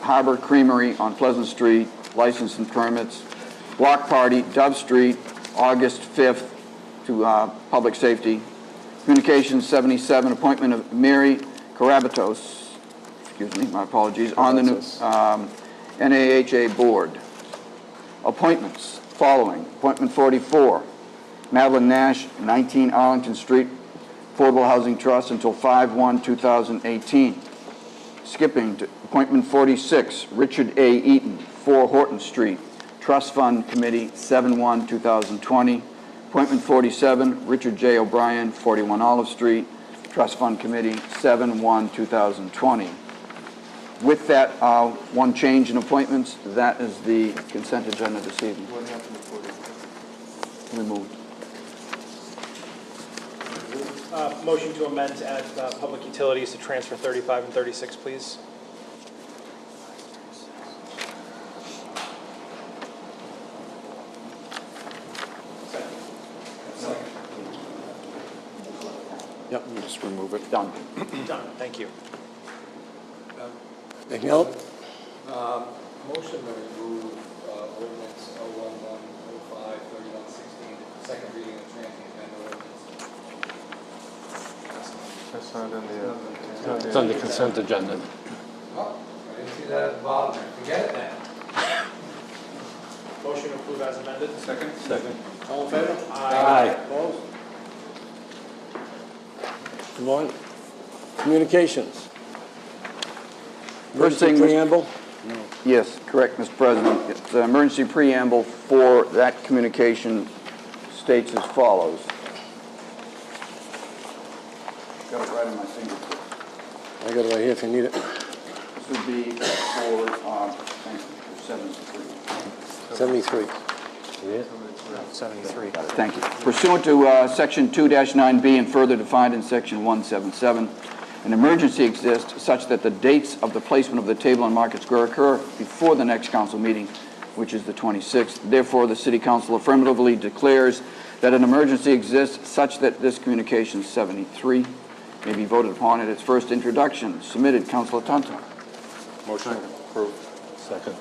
Harbor Creamery on Pleasant Street, license and permits. Block party, Dove Street, August 5th to uh, Public Safety. Communications 77, appointment of Mary Karabatos, excuse me, my apologies, on the new um, NAHA Board. Appointments, following. Appointment 44, Madeline Nash, 19 Arlington Street, Affordable Housing Trust until 5/1/2018. Skipping to appointment 46, Richard A. Eaton, 4 Horton Street, Trust Fund Committee, 7/1/2020. Appointment 47, Richard J. O'Brien, 41 Olive Street, Trust Fund Committee, 7/1/2020. With that, uh, one change in appointments, that is the consent agenda this evening. Removed. Uh, Motion to amend to add uh, public utilities to transfer 35 and 36, please. Yep, just remove it. Done. Done, thank you. Anything else? Uh, Motion to remove uh, ordinance 01105, 3116, second reading of transient vendor ordinance. That's not in the, It's on the consent agenda. Oh, I didn't see that at the bottom, there. forget it then. Motion to approve as amended. Second? Second. All in favor? Aye. Opposed? Move on. Communications. First Emergency thing, Mr. preamble. Yes, correct, Mr. President. It's the emergency preamble for that communication states as follows. Got it right on my fingertips. I got it right here if you need it. This would be for, uh, thank you, for seven, three. 73. 73. Thank you. Pursuant to uh, Section 2-9B and further defined in Section 177, an emergency exists such that the dates of the placement of the table in Market Square occur before the next council meeting, which is the 26th. Therefore, the city council affirmatively declares that an emergency exists such that this Communication 73 may be voted upon at its first introduction. Submitted, Councilor Tantar. motion approved. Second.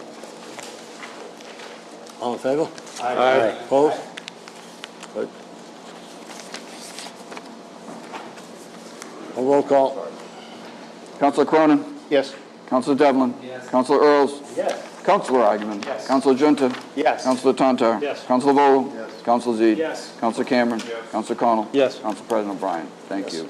All in favor? Aye. Opposed? Good. A roll call. Councilor Cronin. Yes. Councilor Devlin. Yes. Councilor Earls. Yes. Councilor Agaman. Yes. Councilor Junta. Yes. Councilor Tantar. Yes. Councilor Vogel. Yes. Councilor Zede. Yes. Councilor Cameron. Yes. Councilor Connell. Yes. Council President O'Brien. Thank Yes. you.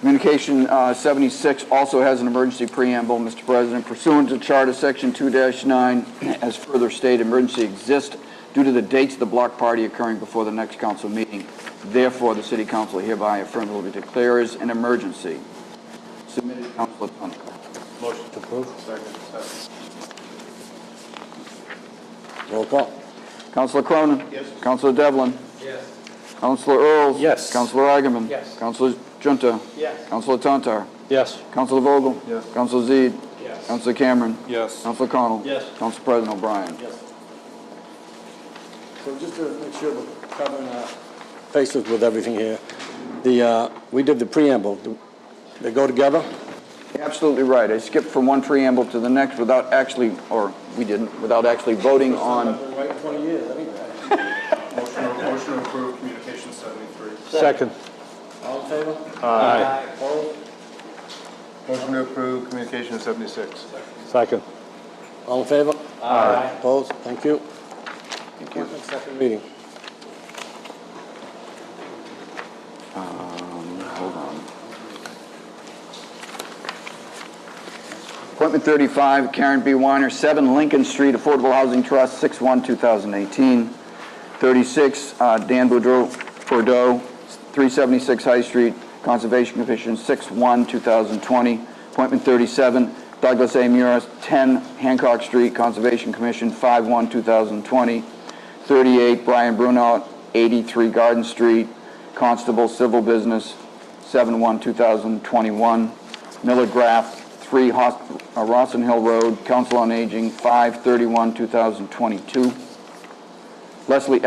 Communication uh, 76 also has an emergency preamble, Mr. President. Pursuant to Charter Section 2-9, as further stated, emergency exists due to the dates of the block party occurring before the next council meeting. Therefore, the city council hereby affirmatively declares an emergency. Submitted, Councilor Tantar. Motion to approve. Second. Roll call. Councilor Cronin. Yes. Councilor Devlin. Yes. Councilor Earls. Yes. Councilor Agaman. Yes. Councilor Junta. Yes. Councilor Tantar. Yes. Councilor Vogel. Yes. Councilor Zede. Yes. Councilor Cameron. Yes. Councilor Connell. Yes. Council President O'Brien. Yes. So just to make sure we're covering our faces with everything here, the, uh, we did the preamble. Do They go together? You're Absolutely right. I skipped from one preamble to the next without actually, or we didn't, without actually voting on. right 20 years, anyway. Motion, motion to approve communication seventy-three. Second. All in favor? Aye. Opposed? Motion to approve communication seventy-six. Second. All in favor? Aye. Opposed? Thank you. Thank you. Second reading. Um, hold on. Appointment 35, Karen B. Weiner, 7 Lincoln Street, Affordable Housing Trust, 6/1/2018. 36, uh, Dan Boudreau, Bordeaux, 376 High Street, Conservation Commission, 6/1/2020. Appointment 37, Douglas A. Muris, 10 Hancock Street, Conservation Commission, 5/1/2020. 38, Brian Bruno, 83 Garden Street, Constable Civil Business, 7/1/2021. Miller Graff, 3 Hos- uh, Rossin Hill Road, Council on Aging, 5/31/2022. Leslie